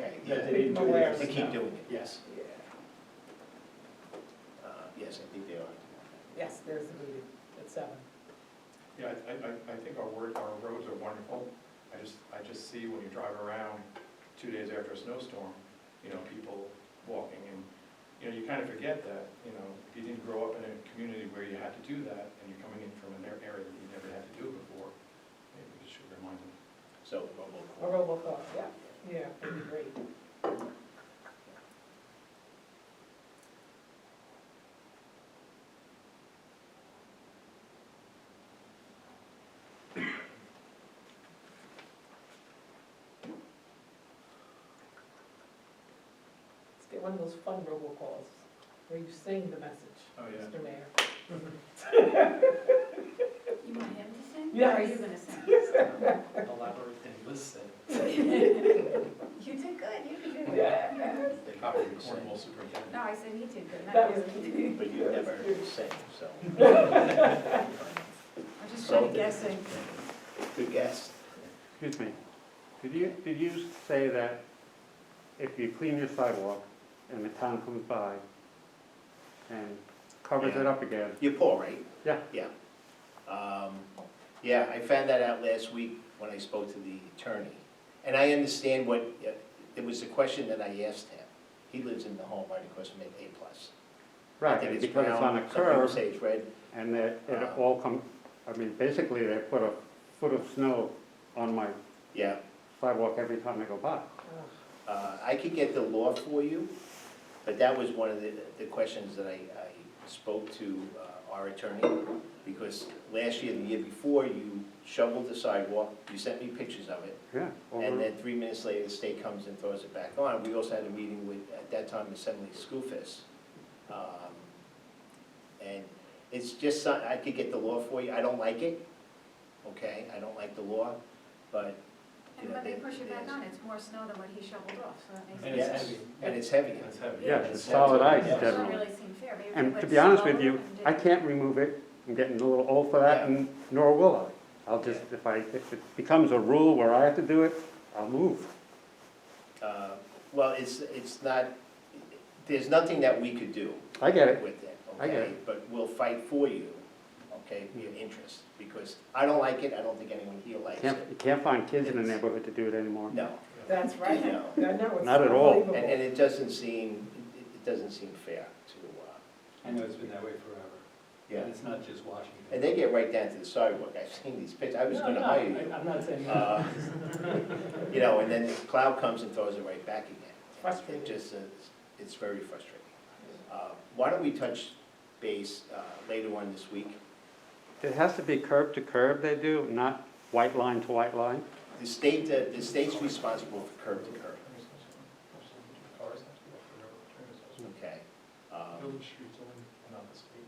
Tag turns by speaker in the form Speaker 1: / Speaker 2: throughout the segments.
Speaker 1: that they didn't do
Speaker 2: Aware
Speaker 1: it.
Speaker 2: of
Speaker 1: To
Speaker 2: it
Speaker 1: keep
Speaker 2: now.
Speaker 1: doing it, yes.
Speaker 2: Yeah.
Speaker 1: Uh, Yes, I think they are.
Speaker 2: Yes, there's the meeting at seven.
Speaker 3: Yeah, I, I, I- I think our word, our roads are wonderful. I just, I just see when you drive around two days after a snowstorm, you know, people walking and, you know, you kind of forget that, you know, if you didn't grow up in a community where you had to do that and you're coming in from an ar- area that you never had to do it before, maybe we should remind them.
Speaker 1: So,
Speaker 2: A robocall, yeah, yeah, that'd be great. Let's get one of those fun robocalls where you sing the message,
Speaker 3: Oh,
Speaker 2: Mr. Mayor.
Speaker 4: You want him to sing? Or are
Speaker 2: Yes.
Speaker 4: you gonna sing?
Speaker 5: elaborate and listen.
Speaker 4: You did good, you did good.
Speaker 2: Yeah.
Speaker 3: They copy the Cornwall superintendent.
Speaker 4: No, I said he did good,
Speaker 2: That
Speaker 4: not
Speaker 2: was
Speaker 4: you.
Speaker 1: But you never say, so,
Speaker 4: I'm just kind of guessing.
Speaker 1: good guess.
Speaker 6: Excuse me, did you, did you say that if you clean your sidewalk and the town comes by and covers it up again,
Speaker 1: You're Paul, right?
Speaker 6: Yeah.
Speaker 1: Yeah. Um, Yeah, I found that out last week when I spoke to the attorney. And I understand what, it was a question that I asked him. He lives in the home right across from A plus. I
Speaker 6: right,
Speaker 1: think
Speaker 6: and because it's
Speaker 1: brown,
Speaker 6: on a
Speaker 1: some people
Speaker 6: curve
Speaker 1: say it's Uh-huh. red.
Speaker 6: and that it all come, I mean, basically they put a foot of snow on my
Speaker 1: Yeah,
Speaker 6: sidewalk every time I go by.
Speaker 2: Ugh.
Speaker 1: Uh, I could get the law for you, but that was one of the, the questions that I, I spoke to uh, our attorney, because last year, the year before, you shoveled the sidewalk, you sent me pictures of it,
Speaker 6: Yeah,
Speaker 5: Uh-huh.
Speaker 1: and
Speaker 6: over,
Speaker 1: then three minutes later, the state comes and throws it back on. We also had a meeting with, at that time, Assembly Schoolfist. Um, And it's just, some- I could get the law for you, I don't like it, okay, I don't like the law, but,
Speaker 4: And when they push it back on, it's more snow than what he shoveled off, so that makes
Speaker 5: And it's
Speaker 4: sense.
Speaker 1: yes,
Speaker 5: heavy.
Speaker 1: and it's heavy.
Speaker 3: That's heavy.
Speaker 6: yeah, it's solid ice
Speaker 1: Yeah.
Speaker 4: It doesn't
Speaker 6: generally.
Speaker 4: really seem fair. Maybe if
Speaker 6: And
Speaker 4: they
Speaker 6: to
Speaker 4: put
Speaker 6: be honest with
Speaker 4: snow
Speaker 6: you,
Speaker 4: and
Speaker 6: I
Speaker 4: did-
Speaker 6: can't remove it, I'm getting a little old for that,
Speaker 1: Yeah.
Speaker 6: and nor will I. I'll just, if I, if it becomes a rule where I have to do it, I'll move.
Speaker 1: Uh, Well, it's, it's not, there's nothing that we could do
Speaker 6: I get it.
Speaker 1: with it,
Speaker 6: I get
Speaker 1: okay? But we'll fight for you, okay, for your interest, because I don't like it, I don't think anyone here likes
Speaker 6: Can't,
Speaker 1: it.
Speaker 6: you can't find kids in the neighborhood to do it anymore.
Speaker 1: No,
Speaker 2: That's right.
Speaker 1: No.
Speaker 2: I know, it's
Speaker 6: Not at all.
Speaker 1: and,
Speaker 2: unbelievable.
Speaker 1: and it doesn't seem, it- it doesn't seem fair to, uh,
Speaker 5: I know it's been that way forever.
Speaker 1: yeah.
Speaker 5: And it's not just Washington.
Speaker 1: And they get right down to the sidewalk, I've seen these pictures, I was
Speaker 5: No,
Speaker 1: gonna
Speaker 5: no,
Speaker 1: hire
Speaker 5: I-
Speaker 1: you.
Speaker 5: I'm not saying that.
Speaker 1: Uh, You know, and then the cloud comes and throws it right back again.
Speaker 2: Frustrating.
Speaker 1: It just, uh, it's- it's very frustrating. Uh, Why don't we touch base uh, later on this week?
Speaker 6: It has to be curb to curb they do, not white line to white line.
Speaker 1: The state, uh, the state's responsible for curb to curb,
Speaker 3: Cars have to go up the railroad trails, those
Speaker 1: okay?
Speaker 3: are
Speaker 1: Um,
Speaker 3: Village streets only, not the street,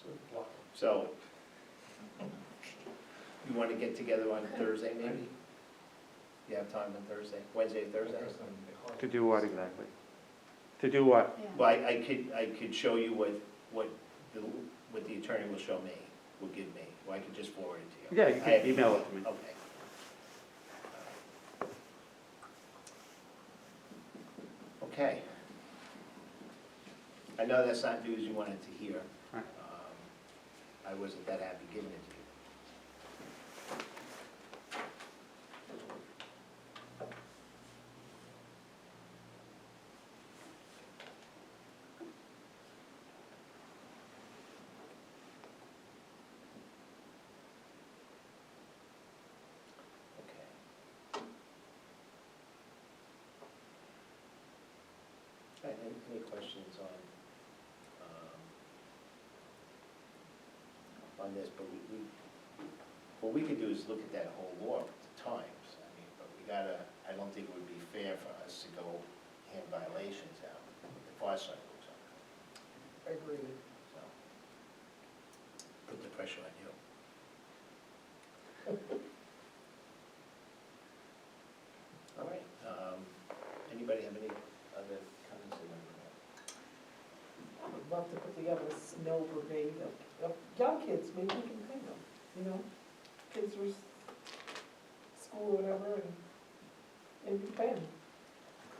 Speaker 3: so it block.
Speaker 1: So, you want to get together on Thursday, maybe? You have time on Thursday, Wednesday, Thursday?
Speaker 3: Because then the cars-
Speaker 6: To do what exactly? To do what?
Speaker 4: Yeah.
Speaker 1: Well, I I could, I could show you what, what, the what the attorney will show me, will give me, or I could just forward it to you.
Speaker 6: Yeah, you
Speaker 1: I have
Speaker 6: can email it to me.
Speaker 1: Okay. Okay. I know that's not news you wanted to hear.
Speaker 6: Right.
Speaker 1: Um, I wasn't that happy giving it to you. Okay. All right, Any any questions on, um, on this, but we, we, what we could do is look at that whole law at the times, I mean, but we gotta, I don't think it would be fair for us to go hand violations out, with the fire cycles up,
Speaker 2: Agreed.
Speaker 1: so. Put the pressure on you. All right, um, anybody have any other comments they want to make?
Speaker 2: I would love to put together a snow brigade of, of young kids, maybe we can pay them, you know? Kids who are s- school or whatever, and, and we pay them.